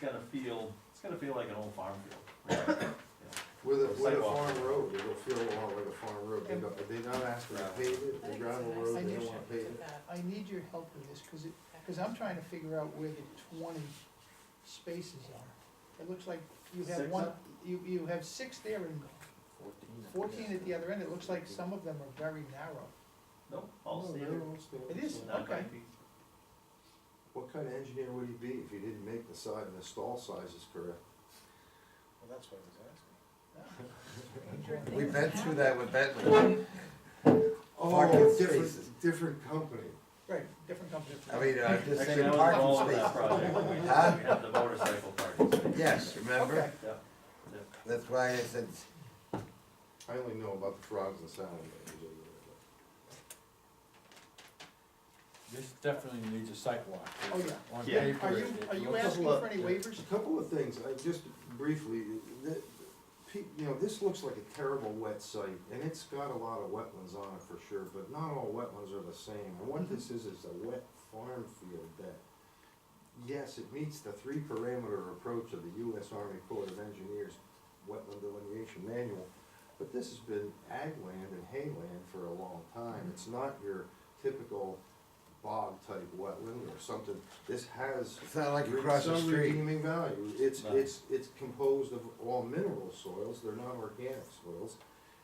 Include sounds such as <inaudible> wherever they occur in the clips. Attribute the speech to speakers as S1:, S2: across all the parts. S1: gonna feel, it's gonna feel like an old farm field.
S2: With a, with a
S1: Sidewalk.
S2: farm road, it'll feel a lot like a farm road, they don't, they don't ask for it paved,
S3: I
S2: they
S3: think
S2: gravel
S3: it's a nice
S2: road, they
S4: idea.
S2: don't wanna pave it.
S4: I need your help with this, cause it, cause I'm trying to figure out where the twenty spaces are. It looks like you have
S1: Six
S4: one,
S1: up?
S4: you, you have six there and fourteen at the other end, it looks like some of them are very narrow.
S1: Nope, all
S2: Oh, No,
S1: standard.
S2: they're all standard.
S4: It is?
S1: Not by
S4: Okay.
S1: feet.
S2: What kind of engineer would he be if he didn't make the side and the stall sizes correct?
S5: Well, that's what I was asking.
S6: We've been through that with Bentley. Parking
S2: Oh,
S6: spaces.
S2: different, different company.
S4: Right, different company.
S6: I mean, I'm just
S1: Actually,
S6: saying
S1: that was the
S6: uh, parking
S1: goal of that
S6: spaces.
S1: project, when we did,
S6: Huh?
S1: we
S2: <laughs>
S1: had the motorcycle parking space.
S6: Yes,
S4: Okay,
S6: remember?
S1: Yep, yep.
S6: That's why I said,
S2: I only know about the frogs and salamanders.
S5: This definitely needs a sidewalk.
S4: oh yeah.
S5: On
S1: Yeah.
S5: paper.
S4: Are you,
S5: it- it
S4: are you
S5: looks-
S4: asking for any waivers?
S2: A couple of things, I just briefly, that, pe- you know, this looks like a terrible wet site, and it's got a lot of wetlands on it for sure, but not all wetlands are the same. And what this is, is a wet farm field that, yes, it meets the three parameter approach of the US Army Corps of Engineers wetland delineation manual, but this has been ag land and hay land for a long time. It's not your typical bog type wetland or something. This has
S6: it's not like across the
S2: some
S6: street.
S2: redeeming value, it's,
S1: No.
S2: it's, it's composed of all mineral soils, they're not organic soils.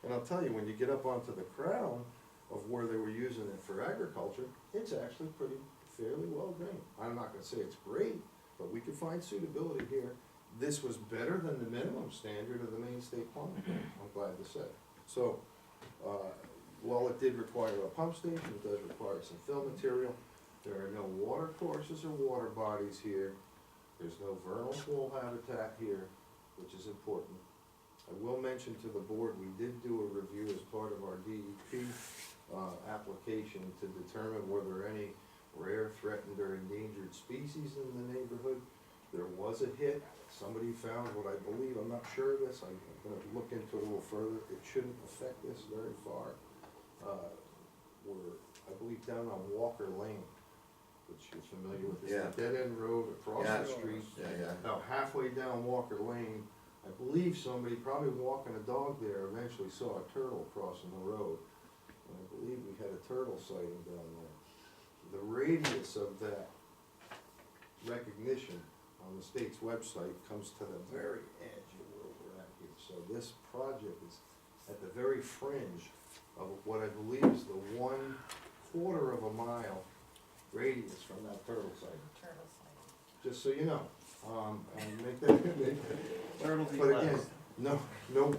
S2: And I'll tell you, when you get up onto the crown of where they were using it for agriculture, it's actually pretty fairly well drained. I'm not gonna say it's great, but we could find suitability here. This was better than the minimum standard of the main state plumbing, code, I'm glad to say. So, uh, while it did require a pump station, it does require some fill material. There are no water courses or water bodies here. There's no vernal pool habitat here, which is important. I will mention to the board, we did do a review as part of our DEP, uh, application to determine were there any rare, threatened, or endangered species in the neighborhood. There was a hit, somebody found what I believe, I'm not sure of this, I'm gonna look into it a little further, it shouldn't affect this very far. Uh, We're, I believe down on Walker Lane, which you're familiar with, it's
S6: Yeah.
S2: a dead end road across
S6: Yeah.
S2: the street.
S6: Yeah, yeah.
S2: About halfway down Walker Lane, I believe somebody, probably walking a dog there, eventually saw a turtle crossing the road. And I believe we had a turtle sighting down there. The radius of that recognition on the state's website comes to the very edge of where we're at here. So this project is at the very fringe of what I believe is the one quarter of a mile radius from that turtle sighting just so you know. Um, and make that, <laughs>
S1: Turtles eat
S2: but again,
S1: lettuce.
S2: no, no,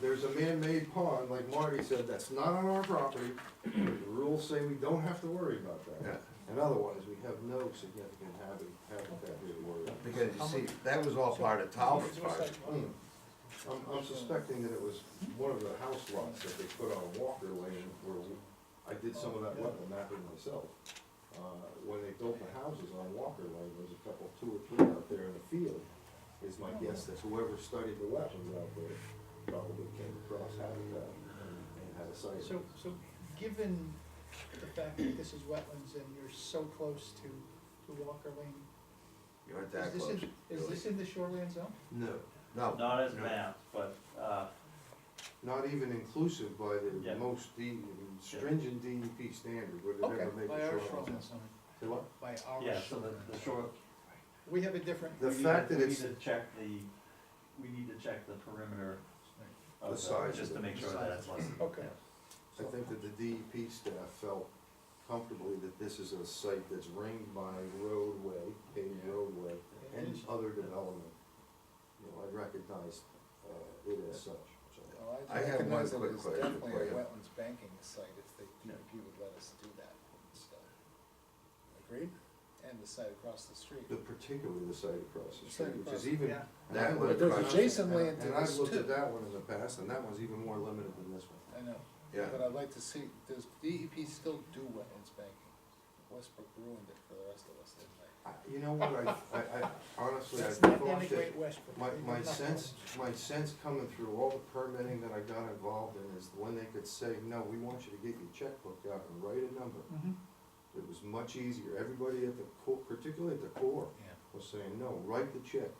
S2: there's a man-made pond, like Marty said, that's not on our property. The rules say we don't have to worry about
S6: Yeah.
S2: that. And otherwise, we have no significant habit, habitat here to worry about.
S6: Because you see, that was all part of Talbot's part.
S2: Hmm. I'm, I'm suspecting that it was one of the house lots that they put on Walker Lane where we- I did some of that wetland mapping myself. Uh, when they built the houses on Walker Lane, there's a couple, two or three out there in the field. Is my guess that whoever studied the wetlands out there probably came across habitat and and had a site.
S4: So, so given the fact that this is wetlands and you're so close to, to Walker Lane,
S6: You weren't
S4: is
S6: that
S4: this
S6: close.
S4: in, is this in the shoreline zone?
S2: No,
S6: No,
S1: Not as mapped, but, uh,
S2: not even inclusive by the
S1: Yeah.
S2: most D, stringent DEP standard, would it
S4: Okay,
S2: ever make
S3: By our
S2: a
S3: shoreline
S2: shoreline?
S3: zone,
S2: Say what?
S3: by our
S1: yeah,
S3: shoreline.
S1: so the, the short,
S4: We have a different,
S2: The
S1: we need
S2: fact
S1: to-
S2: that it's-
S1: We need to check the, we need to check the perimeter
S2: The
S1: of the,
S2: size
S1: just to
S2: of it.
S1: make sure that it's less. than-
S4: Okay.
S1: yeah.
S2: I think that the DEP staff felt comfortably that this is a site that's ringed by roadway, paved roadway, and other development. You know, I recognize, uh, it as such, so.
S5: Well,
S6: I have one
S5: recognize that
S6: quick
S5: it's
S6: question for
S5: Definitely
S6: you.
S5: a wetlands banking site if they,
S1: Yeah.
S5: if you would let us do that stuff. Agreed? And the site across the street.
S2: The particularly the site across the
S5: The
S2: street,
S5: site
S2: which is
S5: across-
S2: even.
S4: yeah.
S2: and I
S6: That
S2: looked
S6: one
S2: at-
S6: across-
S5: Jason lay into
S2: And I
S5: this
S2: looked
S5: too.
S2: at that one in the past, and that one's even more limited than this one.
S5: I know,
S6: yeah.
S5: but I'd like to see, does DEP still do wetlands banking? Westbrook ruined it for the rest of us, didn't they?
S2: I- You know what, I, I, I honestly, I
S4: that's
S2: thought
S4: not
S2: that.
S4: denigrate Westbrook.
S2: My,
S4: They did
S2: my
S4: nothing.
S2: sense, my sense coming through all the permitting that I got involved in is when they could say, no, we want you to get your checkbook out and write a number.
S5: Mm-hmm.
S4: Mhm.
S2: It was much easier, everybody at the core, particularly at the core,
S5: Yeah.
S2: was saying, no, write the check,